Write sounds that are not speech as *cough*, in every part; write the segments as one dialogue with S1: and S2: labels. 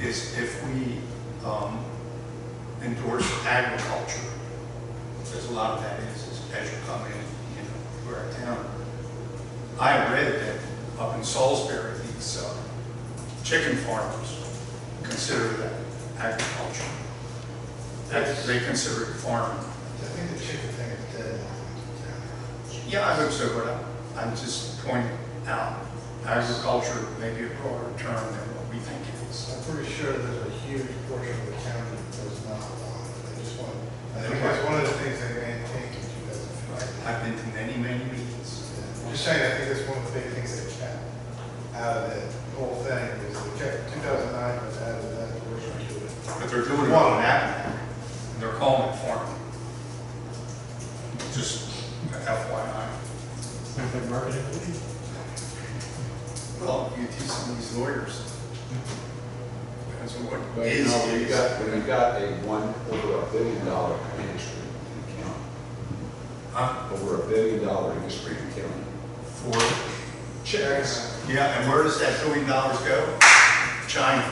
S1: is if we um, endorse agriculture, there's a lot of that is, is as you come in, you know, to our town. I read that up in Salisbury, these uh, chicken farmers consider that agriculture. That, they consider it farming.
S2: I think the chicken thing is dead.
S1: Yeah, I hope so, but I- I'm just pointing out agriculture may be a broader term than what we think it is.
S2: I'm pretty sure there's a huge portion of the county that does not want it. They just want, I think that's one of the things they maintained in two thousand five.
S1: I've been to many, many meetings.
S2: I'm just saying, I think that's one of the big things they kept out of that whole thing is they kept, two thousand nine was out of that portion to it.
S1: But they're doing it on an avenue, and they're calling it farming. Just FYI. Well, you teach some of these lawyers. Depends on what
S3: But
S1: is.
S3: no, we
S1: is.
S3: got, we got a one, over a billion dollar industry in the county,
S1: Huh?
S3: over a billion dollar industry in the county.
S1: For,
S3: Checks.
S1: yeah, and where does that billion dollars go? China.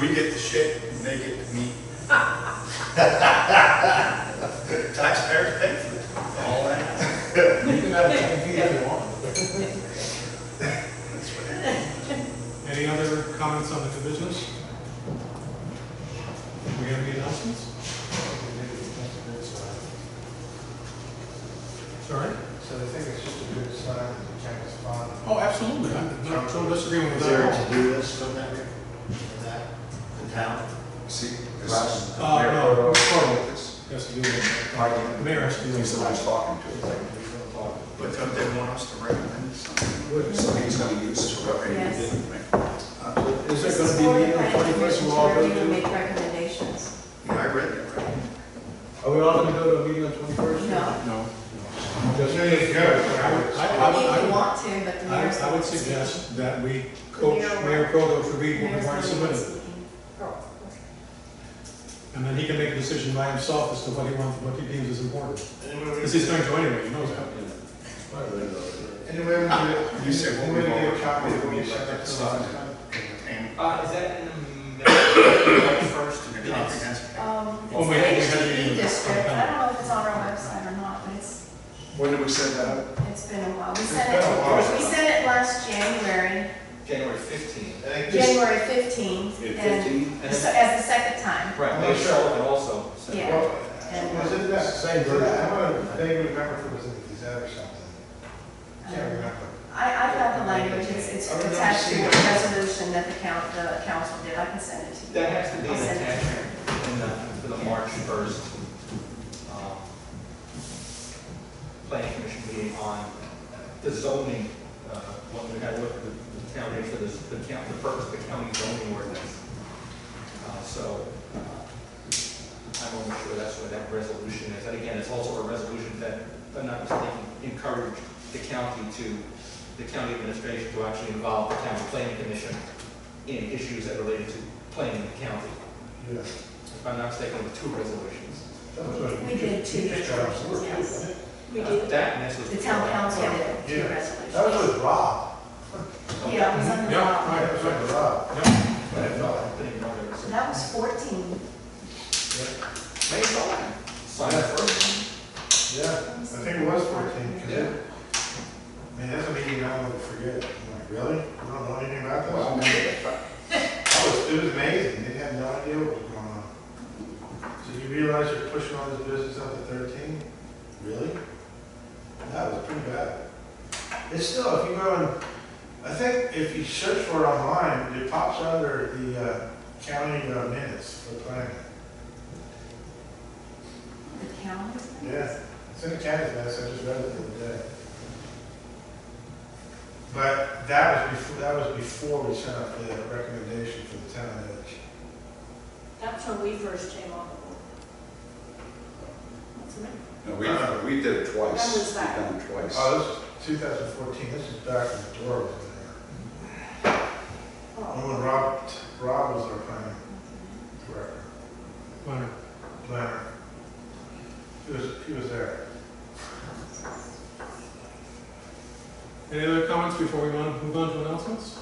S1: We get the shit, and they get the meat. *laughs* Taxpayers pay for it, all that.
S2: *laughs* You can have a chicken feed if you want.
S1: That's what it is.
S4: Any other comments on the business? We have any announcements? Sorry?
S2: So I think it's just a good sign that the county's fond of.
S4: Oh, absolutely. I'm not totally disagreeing with
S5: Is there a
S4: that.
S5: to-do list from that, from that, the town?
S3: See, this
S5: Right.
S3: is.
S1: Oh,
S4: Uh,
S3: Mayor,
S4: no.
S3: we're starting with this.
S4: Has to do with
S3: Pardon?
S4: the mayor has to do
S3: He's
S4: with
S3: the
S4: that.
S3: one who's talking to it,
S1: But don't they want us to recommend something?
S3: like, so he's gonna use this for everything. he did, right?
S4: Uh, Is there gonna be a meeting on the twenty-first we'll all go
S6: Where you
S4: to?
S6: make recommendations.
S1: Yeah, I read that, right?
S4: Are we all gonna go to a meeting on twenty-first?
S6: No.
S4: No.
S2: Just really good. but I would-
S4: I, I, would- I
S6: If you
S4: would,
S6: want to, but the
S4: I
S6: mayor's.
S4: would- I would
S6: not speaking.
S4: suggest that we
S6: The
S4: coach
S6: mayor won't-
S4: Mayor Proto to read what we
S6: Mayor's
S4: want
S6: not
S4: to
S6: even
S4: submit.
S6: speaking. Oh,
S4: And then he can make a decision by himself as to what he wants, what he deems is important. Because he's going to anyway, he knows that.
S2: Anyway, we
S1: You said what
S2: we
S1: we've
S2: need
S1: all
S2: a copy of what you
S1: recommended, like
S2: sent
S1: that
S2: us.
S1: sign. And
S7: Uh, is that in the *coughs* middle, like first
S1: the
S7: minutes?
S1: comprehensive.
S6: okay. Um,
S4: Oh, wait, we
S6: it's
S4: had to
S6: the
S4: do
S6: HDD
S4: the-
S6: district, I don't know if it's on our website or not, but it's,
S3: When did we send that out?
S6: it's been a while. We
S2: It's
S6: sent
S2: been a
S6: it,
S2: while.
S6: we sent it last January,
S7: January fifteenth.
S2: I think this-
S6: January fifteenth,
S3: In
S6: and
S3: fifteen?
S6: the se- as the second time.
S7: Right,
S2: I'm
S7: they
S2: not sure.
S7: sold it also, so.
S6: Yeah.
S2: Well,
S6: And-
S2: Was it that,
S4: uh,
S5: Same
S2: same version?
S5: version.
S2: I'm gonna vaguely remember if it was in the Gazette or something. Can't
S6: Um,
S2: remember.
S6: I, I've got the language, it's, it's
S2: I remember
S6: attached to
S2: seeing
S6: the
S2: it.
S6: resolution that the coun, the council did, I can send it to you.
S7: That has to be
S6: I'll
S7: an
S6: send it to you.
S7: attachment in the, for the March first, um, planning commission meeting on the zoning, uh, when we had looked at the county for this, the county, the purpose of the county zoning ordinance. Uh, so, uh, I'm almost sure that's what that resolution is, and again, it's also a resolution that, if I'm not mistaken, encouraged the county to, the county administration to actually involve the county planning commission in issues that related to planning in the county.
S2: Yeah.
S7: If I'm not mistaken, with two resolutions.
S2: That was what-
S6: We did two
S2: You just got
S6: resolutions,
S2: absorbed.
S6: yes. We
S7: Uh,
S6: did,
S7: That, and this was.
S6: the town council did two
S2: Yeah.
S6: resolutions.
S2: That was with Rob.
S6: Yeah, it was on the
S4: Yeah,
S6: bottom.
S4: right.
S2: That was with Rob.
S7: I didn't know, I didn't know there was
S6: So
S7: a-
S6: that was fourteen.
S7: Maybe it's on. Sign the first.
S2: Yeah, I think it was fourteen. 'cause it- I mean, that's a meeting I would forget. I'm like, really? You don't know anything about this?
S3: Well, I remember that.
S2: *laughs* That was, it was amazing. They had no idea what was going on. So you realize you're pushing all this business up to thirteen? Really? That was pretty bad. It's still, if you go and, I think if you search for it online, it pops under the uh, county uh, minutes for planning.
S6: The county?
S2: Yeah, it's in the county minutes, I just read it the other day. But that was before, that was before we sent out the recommendation for the town edge.
S6: That's when we first came on the board.
S3: No, we, we did it twice.
S6: When was that?
S3: We've done it twice.
S2: Oh, this is 2014, this is back when Dora was in there.
S6: Oh.
S2: And when Rob, Rob was our planning director,
S4: Fine.
S2: planner. He was, he was there.
S4: Any other comments before we move on move on to announcements?